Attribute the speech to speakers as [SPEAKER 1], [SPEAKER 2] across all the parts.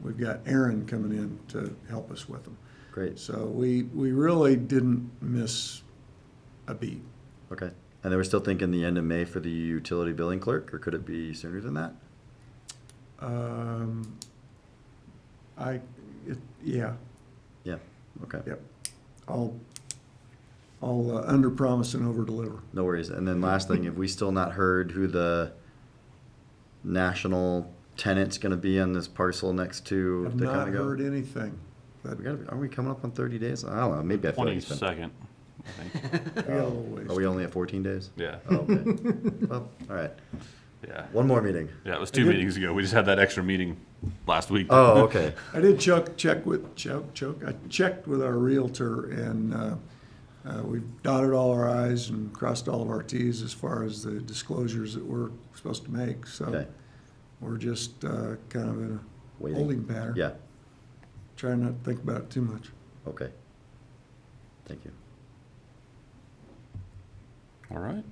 [SPEAKER 1] We've got Aaron coming in to help us with them.
[SPEAKER 2] Great.
[SPEAKER 1] So we, we really didn't miss a beat.
[SPEAKER 2] Okay. And then we're still thinking the end of May for the utility billing clerk, or could it be sooner than that?
[SPEAKER 1] Um, I, it, yeah,
[SPEAKER 2] Yeah. Okay.
[SPEAKER 1] yep. I'll, I'll uh, under promise and over deliver.
[SPEAKER 2] No worries. And then last thing, have we still not heard who the national tenant's going to be on this parcel next to
[SPEAKER 1] I've
[SPEAKER 2] the
[SPEAKER 1] not
[SPEAKER 2] Conoco?
[SPEAKER 1] heard anything. But
[SPEAKER 2] We gotta be, are we coming up on 30 days? I don't know. Maybe I feel like it's been,
[SPEAKER 3] Twenty-second, I think.
[SPEAKER 1] we got a little ways.
[SPEAKER 2] Are we only at 14 days?
[SPEAKER 3] Yeah,
[SPEAKER 2] Oh, okay. well, all right.
[SPEAKER 3] yeah.
[SPEAKER 2] One more meeting.
[SPEAKER 3] Yeah, it was two meetings ago. We just had that extra meeting last week.
[SPEAKER 2] Oh, okay.
[SPEAKER 1] I did check, check with, choke, choke, I checked with our realtor and, uh, uh, we've dotted all our i's and crossed all of our t's as far as the disclosures that we're supposed to make, so
[SPEAKER 2] Okay.
[SPEAKER 1] we're just, uh, kind of in a
[SPEAKER 2] Waiting.
[SPEAKER 1] holding pattern.
[SPEAKER 2] Yeah.
[SPEAKER 1] Trying not to think about it too much.
[SPEAKER 2] Okay. Thank you.
[SPEAKER 3] All right.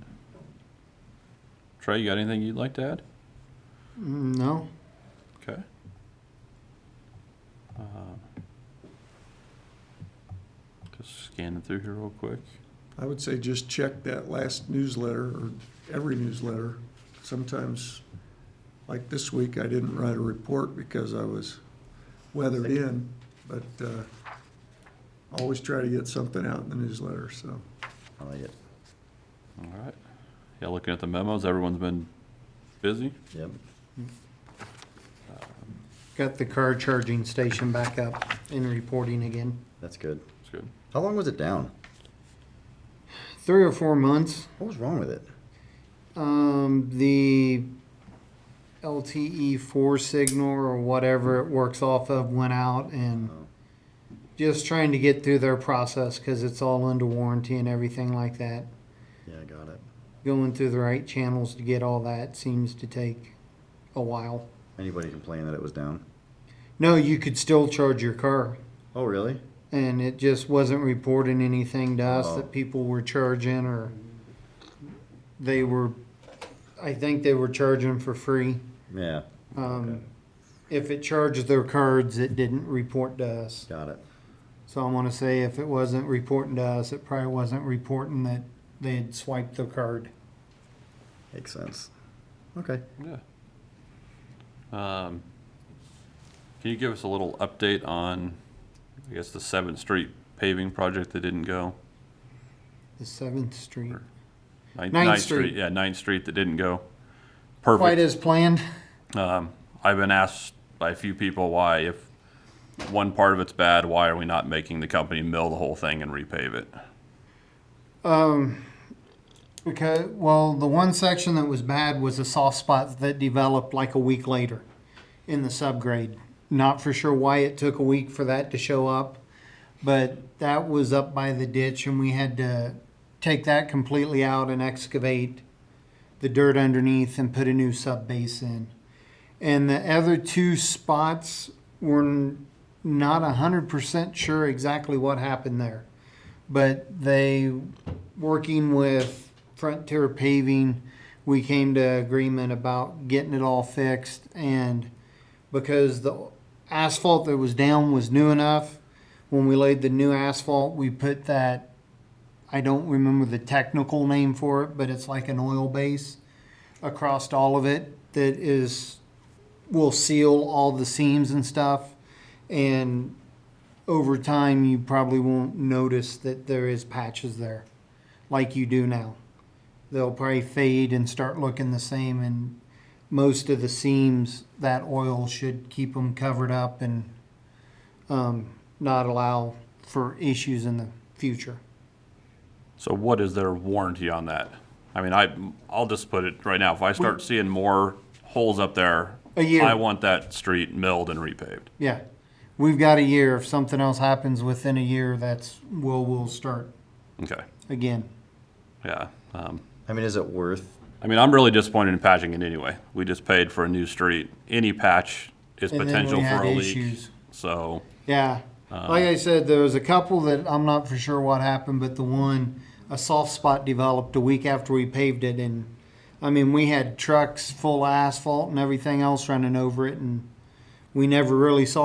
[SPEAKER 3] Trey, you got anything you'd like to add?
[SPEAKER 4] No.
[SPEAKER 3] Okay. Uh, Just scanning through here real quick.
[SPEAKER 1] I would say just check that last newsletter, or every newsletter. Sometimes, like this week, I didn't write a report because I was weathered in, but uh, always try to get something out in the newsletter, so.
[SPEAKER 2] I like it.
[SPEAKER 3] All right. Yeah, looking at the memos, everyone's been busy.
[SPEAKER 2] Yep.
[SPEAKER 4] Got the car charging station back up and reporting again.
[SPEAKER 2] That's good.
[SPEAKER 3] It's good.
[SPEAKER 2] How long was it down?
[SPEAKER 4] Three or four months.
[SPEAKER 2] What was wrong with it?
[SPEAKER 4] Um, the LTE four signal or whatever it works off of went out and
[SPEAKER 2] Oh.
[SPEAKER 4] just trying to get through their process because it's all under warranty and everything like that.
[SPEAKER 2] Yeah, I got it.
[SPEAKER 4] Going through the right channels to get all that seems to take a while.
[SPEAKER 2] Anybody complain that it was down?
[SPEAKER 4] No, you could still charge your car.
[SPEAKER 2] Oh, really?
[SPEAKER 4] and it just wasn't reporting anything to us
[SPEAKER 2] Oh.
[SPEAKER 4] that people were charging or they were, I think they were charging for free.
[SPEAKER 2] Yeah,
[SPEAKER 4] Um, if it charged their cards, it didn't report to us.
[SPEAKER 2] got it.
[SPEAKER 4] So I want to say if it wasn't reporting to us, it probably wasn't reporting that they had swiped their card.
[SPEAKER 2] Makes sense. Okay.
[SPEAKER 3] Yeah. Um, Can you give us a little update on, I guess, the Seventh Street paving project that didn't go?
[SPEAKER 4] The Seventh Street,
[SPEAKER 3] Ninth,
[SPEAKER 4] Ninth
[SPEAKER 3] Ninth
[SPEAKER 4] Street.
[SPEAKER 3] Street, yeah, Ninth Street that didn't go.
[SPEAKER 4] quite
[SPEAKER 3] Perfect.
[SPEAKER 4] as planned.
[SPEAKER 3] Um, I've been asked by a few people why, if one part of it's bad, why are we not making the company mill the whole thing and repave it?
[SPEAKER 4] Um, because, well, the one section that was bad was a soft spot that developed like a week later in the subgrade. Not for sure why it took a week for that to show up, but that was up by the ditch and we had to take that completely out and excavate the dirt underneath and put a new sub base in. And the other two spots were n- not a hundred percent sure exactly what happened there. But they working with Frontier Paving, we came to agreement about getting it all fixed and because the asphalt that was down was new enough, when we laid the new asphalt, we put that, I don't remember the technical name for it, but it's like an oil base across all of it that is, will seal all the seams and stuff. And over time, you probably won't notice that there is patches there like you do now. They'll probably fade and start looking the same, and most of the seams, that oil should keep them covered up and um, not allow for issues in the future.
[SPEAKER 3] So what is their warranty on that? I mean, I, I'll just put it right now, if I start seeing more holes up there,
[SPEAKER 4] A year.
[SPEAKER 3] I want that street milled and repaved.
[SPEAKER 4] Yeah, we've got a year. If something else happens within a year, that's we'll we'll start
[SPEAKER 3] Okay,
[SPEAKER 4] again.
[SPEAKER 3] yeah. Um,
[SPEAKER 2] I mean, is it worth?
[SPEAKER 3] I mean, I'm really disappointed in patching it anyway. We just paid for a new street. Any patch is
[SPEAKER 4] And then we
[SPEAKER 3] potential
[SPEAKER 4] had
[SPEAKER 3] for a leak.
[SPEAKER 4] issues.
[SPEAKER 3] So,
[SPEAKER 4] Yeah. like I said, there was a couple that I'm not for sure what happened, but the one, a soft spot developed a week after we paved it. And I mean, we had trucks full of asphalt and everything else running over it, and we never really saw